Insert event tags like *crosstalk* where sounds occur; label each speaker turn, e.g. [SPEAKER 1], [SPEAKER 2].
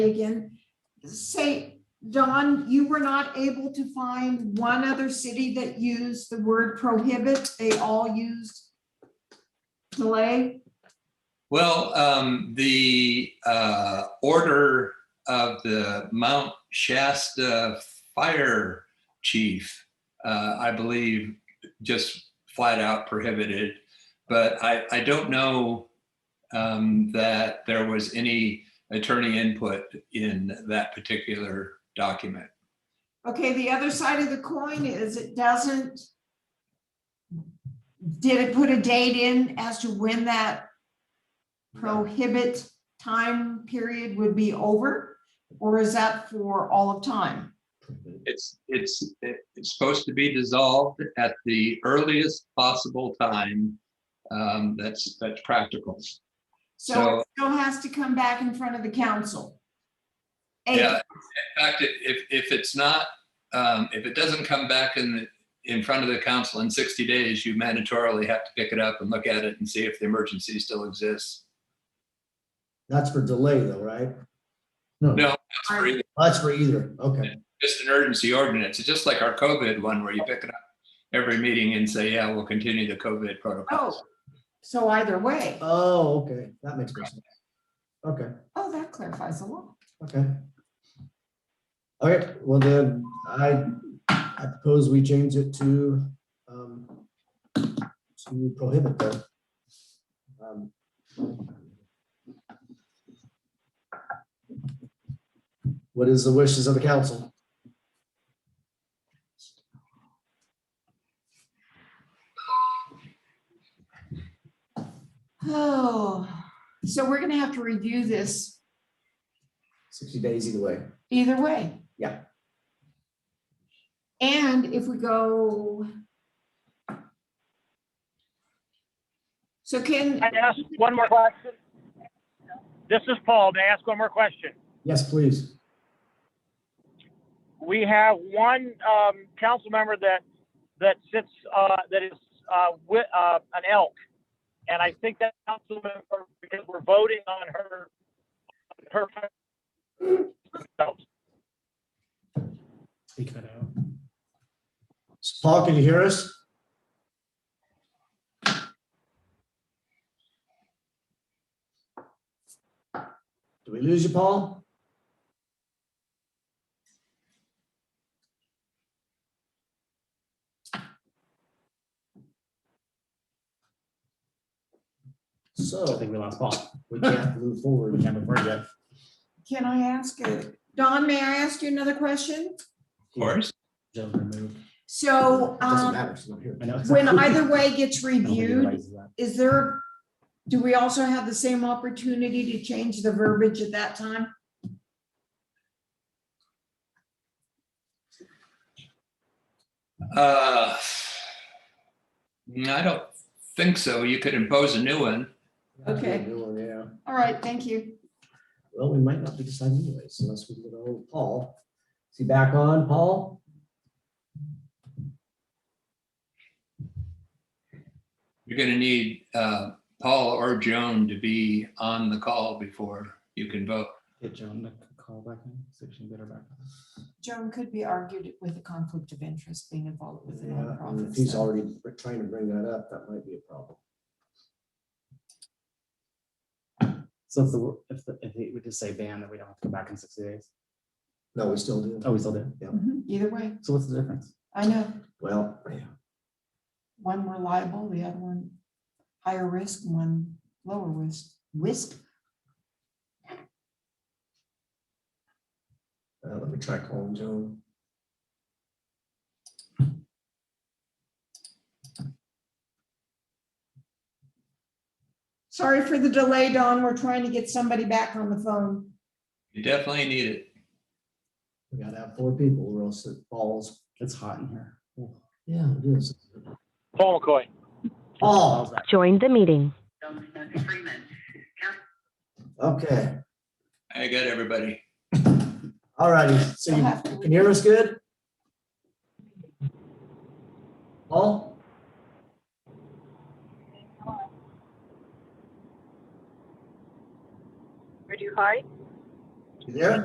[SPEAKER 1] Again, say, Don, you were not able to find one other city that used the word prohibit. They all used delay.
[SPEAKER 2] Well, um, the, uh, order of the Mount Shasta Fire Chief, uh, I believe, just flat out prohibited. But I, I don't know, um, that there was any attorney input in that particular document.
[SPEAKER 1] Okay, the other side of the coin is it doesn't. Did it put a date in as to when that prohibit time period would be over? Or is that for all of time?
[SPEAKER 2] It's, it's, it's supposed to be dissolved at the earliest possible time. Um, that's, that's practical.
[SPEAKER 1] So it still has to come back in front of the council.
[SPEAKER 2] Yeah, in fact, if- if, if it's not, um, if it doesn't come back in, the- in front of the council in 60 days, you mandatorily have to pick it up and look at it and see if the emergency still exists.
[SPEAKER 3] That's for delay though, right? No,
[SPEAKER 2] No. That's for either-
[SPEAKER 3] That's for either. Okay.
[SPEAKER 2] Just an urgency ordinance, it's just like our COVID one where you pick it up every meeting and say, yeah, we'll continue the COVID
[SPEAKER 1] Oh,
[SPEAKER 2] protocols.
[SPEAKER 1] so either way.
[SPEAKER 3] Oh, okay. That makes more sense. Okay,
[SPEAKER 1] Oh, that clarifies a lot.
[SPEAKER 3] okay. All right, well then, I, I propose we change it to, um, to prohibit them. Um, What is the wishes of the council?
[SPEAKER 1] Oh, so we're gonna have to review this
[SPEAKER 3] Sixty days either way.
[SPEAKER 1] either way.
[SPEAKER 3] Yeah.
[SPEAKER 1] And if we go. So can,
[SPEAKER 4] Can I ask one more question? This is Paul. May I ask one more question?
[SPEAKER 3] Yes, please.
[SPEAKER 4] We have one um, council member that that sits uh, that is uh, with uh, an elk, and I think that council member because we're voting on her her.
[SPEAKER 3] Paul, can you hear us? Do we lose you, Paul?
[SPEAKER 5] I
[SPEAKER 3] So
[SPEAKER 5] think we lost Paul.
[SPEAKER 3] we can't move forward.
[SPEAKER 5] We can't move forward yet.
[SPEAKER 1] can I ask, a- Don, may I ask you another question?
[SPEAKER 2] Of course,
[SPEAKER 5] Jill's removed.
[SPEAKER 1] So
[SPEAKER 3] Doesn't
[SPEAKER 1] um,
[SPEAKER 3] matter, *laughs* she's not here.
[SPEAKER 5] I know.
[SPEAKER 1] when either way gets
[SPEAKER 5] Nobody
[SPEAKER 1] reviewed,
[SPEAKER 5] realizes that.
[SPEAKER 1] is there, do we also have the same opportunity to change the verbiage at that time?
[SPEAKER 2] uh, I don't think so, you could impose a new one.
[SPEAKER 1] Okay.
[SPEAKER 3] Yeah,
[SPEAKER 1] All right, thank you.
[SPEAKER 3] well, we might not be deciding anyways unless we get old Paul. Is he back on, Paul?
[SPEAKER 2] You're gonna need uh, Paul or Joan to be on the call before you can vote.
[SPEAKER 5] Get Joan to call back in, see if she can get her back.
[SPEAKER 1] Joan could be argued with a conflict of interest being involved with a
[SPEAKER 3] Yeah, and
[SPEAKER 1] nonprofit.
[SPEAKER 3] If he's
[SPEAKER 1] so-
[SPEAKER 3] already br- trying to bring that up, that might be a problem.
[SPEAKER 5] So if the, if, the- if it would just say ban, that we don't have to go back in sixty days.
[SPEAKER 3] No, we still do.
[SPEAKER 5] Oh, we still do.
[SPEAKER 1] Mhm, Either way,
[SPEAKER 5] So what's the difference?
[SPEAKER 1] I know,
[SPEAKER 3] Well, yeah,
[SPEAKER 1] one more liable, the other one higher risk, one lower risk, risk.
[SPEAKER 3] uh, let me try calling Joan.
[SPEAKER 1] Sorry for the delay, Don. We're trying to get somebody back on the phone.
[SPEAKER 2] You definitely need it.
[SPEAKER 3] We gotta have four people or else it falls.
[SPEAKER 5] It's hot in here. Ooh.
[SPEAKER 3] Yeah, it is.
[SPEAKER 4] Paul McCoy.
[SPEAKER 3] Paul,
[SPEAKER 5] Paul's back.
[SPEAKER 6] joined the meeting.
[SPEAKER 3] okay,
[SPEAKER 2] I got everybody.
[SPEAKER 3] all righty. So you
[SPEAKER 1] I'll have to-
[SPEAKER 3] can hear us good? Paul?
[SPEAKER 7] Are you high?
[SPEAKER 3] Yeah.